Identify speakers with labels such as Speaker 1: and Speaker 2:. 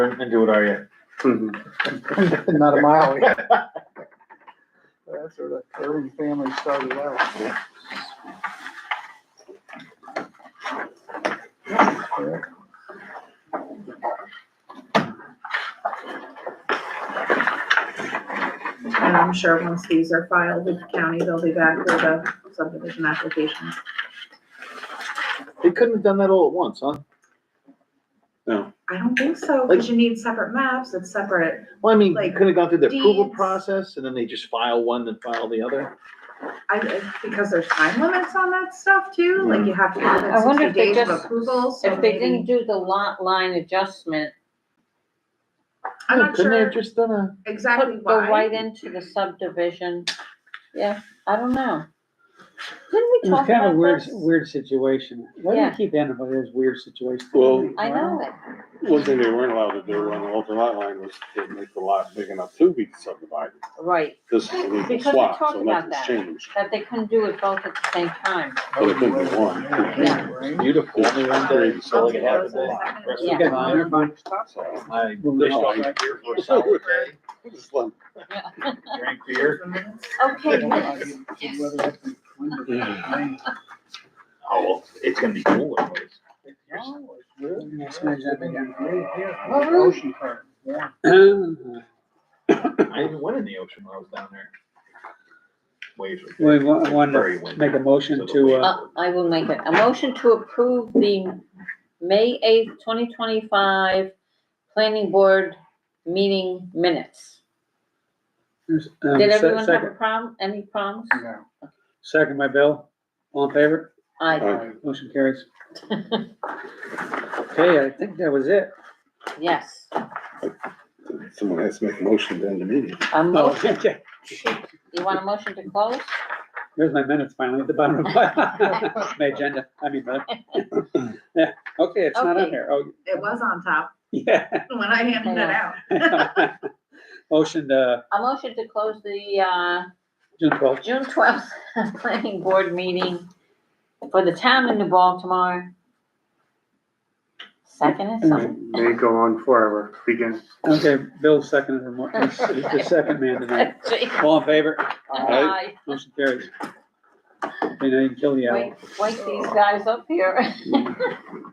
Speaker 1: And do it, are you?
Speaker 2: Not a mile. That's where the Irving family started out. Yeah.
Speaker 3: And I'm sure once these are filed with the county, they'll be back with a subdivision application.
Speaker 1: They couldn't have done that all at once, huh?
Speaker 3: I don't think so, because you need separate maps, it's separate.
Speaker 1: Well, I mean,
Speaker 3: Like,
Speaker 1: couldn't have gone through the approval
Speaker 3: deeds.
Speaker 1: process and then they just file one then file the other?
Speaker 3: I, I- because there's time limits on that stuff too, like you have to give
Speaker 4: I
Speaker 3: it
Speaker 4: wonder
Speaker 3: sixty
Speaker 4: if they
Speaker 3: days of
Speaker 4: just-
Speaker 3: approval, so
Speaker 4: If they didn't
Speaker 3: maybe.
Speaker 4: do the lot line adjustment,
Speaker 3: I'm
Speaker 1: Yeah,
Speaker 3: not
Speaker 1: Couldn't they
Speaker 3: sure
Speaker 1: have just done a,
Speaker 3: exactly
Speaker 4: put- go right
Speaker 3: why.
Speaker 4: into the subdivision, yeah, I don't know. Didn't we
Speaker 5: It was
Speaker 4: talk
Speaker 5: kind of a
Speaker 4: about
Speaker 5: weird,
Speaker 4: this?
Speaker 5: weird situation. Why do
Speaker 4: Yeah.
Speaker 5: you keep ending up in those weird situations?
Speaker 6: Well-
Speaker 4: I know it,
Speaker 6: One thing they weren't allowed to do on the open lot line was to make the lot big enough to be subdivided.
Speaker 4: right,
Speaker 6: This is a legal
Speaker 4: Because we
Speaker 6: swap,
Speaker 4: talked
Speaker 6: so
Speaker 4: about
Speaker 6: nothing's
Speaker 4: that.
Speaker 6: changed.
Speaker 4: that they couldn't do it both at the same time.
Speaker 6: But it couldn't be one.
Speaker 4: Yeah.
Speaker 2: Right?
Speaker 1: beautiful, only one day,
Speaker 6: Great.
Speaker 1: so like it
Speaker 3: I'll
Speaker 1: happened.
Speaker 3: take those in a second.
Speaker 1: Rest
Speaker 4: Yeah.
Speaker 1: of the time,
Speaker 6: So,
Speaker 1: I
Speaker 5: Well,
Speaker 1: dished
Speaker 5: no.
Speaker 1: off my beer for a solid day,
Speaker 6: just let-
Speaker 1: drank beer.
Speaker 4: Okay, minutes,
Speaker 1: Oh, well, it's gonna be cool anyways.
Speaker 2: "Oh, Ocean front, yeah.
Speaker 1: I even went in the ocean when I was down there. Waves were.
Speaker 5: We wa- wanted
Speaker 1: Very
Speaker 5: to
Speaker 1: windy.
Speaker 5: make a motion to, uh,
Speaker 4: uh, I will make it, a motion to approve the May eighth, twenty twenty-five planning board meeting minutes.
Speaker 5: um,
Speaker 4: Did
Speaker 5: se-
Speaker 4: everyone have a
Speaker 5: second,
Speaker 4: problem, any problems?
Speaker 2: No.
Speaker 5: second by Bill, all in favor?
Speaker 4: I,
Speaker 5: Motion carries. Okay, I think that was it.
Speaker 4: yes,
Speaker 6: Someone has to make a motion to end the meeting.
Speaker 4: a
Speaker 5: Oh,
Speaker 4: motion,
Speaker 5: yeah,
Speaker 4: you want a motion to close?
Speaker 5: there's my minutes finally at the bottom of my, my agenda, I mean, my- yeah, okay, it's not on
Speaker 4: Okay.
Speaker 5: there, oh,
Speaker 3: It was on top
Speaker 5: yeah.
Speaker 3: when I handed it out.
Speaker 5: Motion, uh,
Speaker 4: A motion to close the, uh,
Speaker 5: June twelfth,
Speaker 4: June twelfth planning board meeting for the town of New Baltimore. Second is something.
Speaker 7: May go on forever, begin.
Speaker 5: okay, Bill seconded, the mo- he's he's the second man tonight, all in favor?
Speaker 4: Aye.
Speaker 5: Motion carries. Okay, now you can kill the owl.
Speaker 4: Wake, wake these guys up here.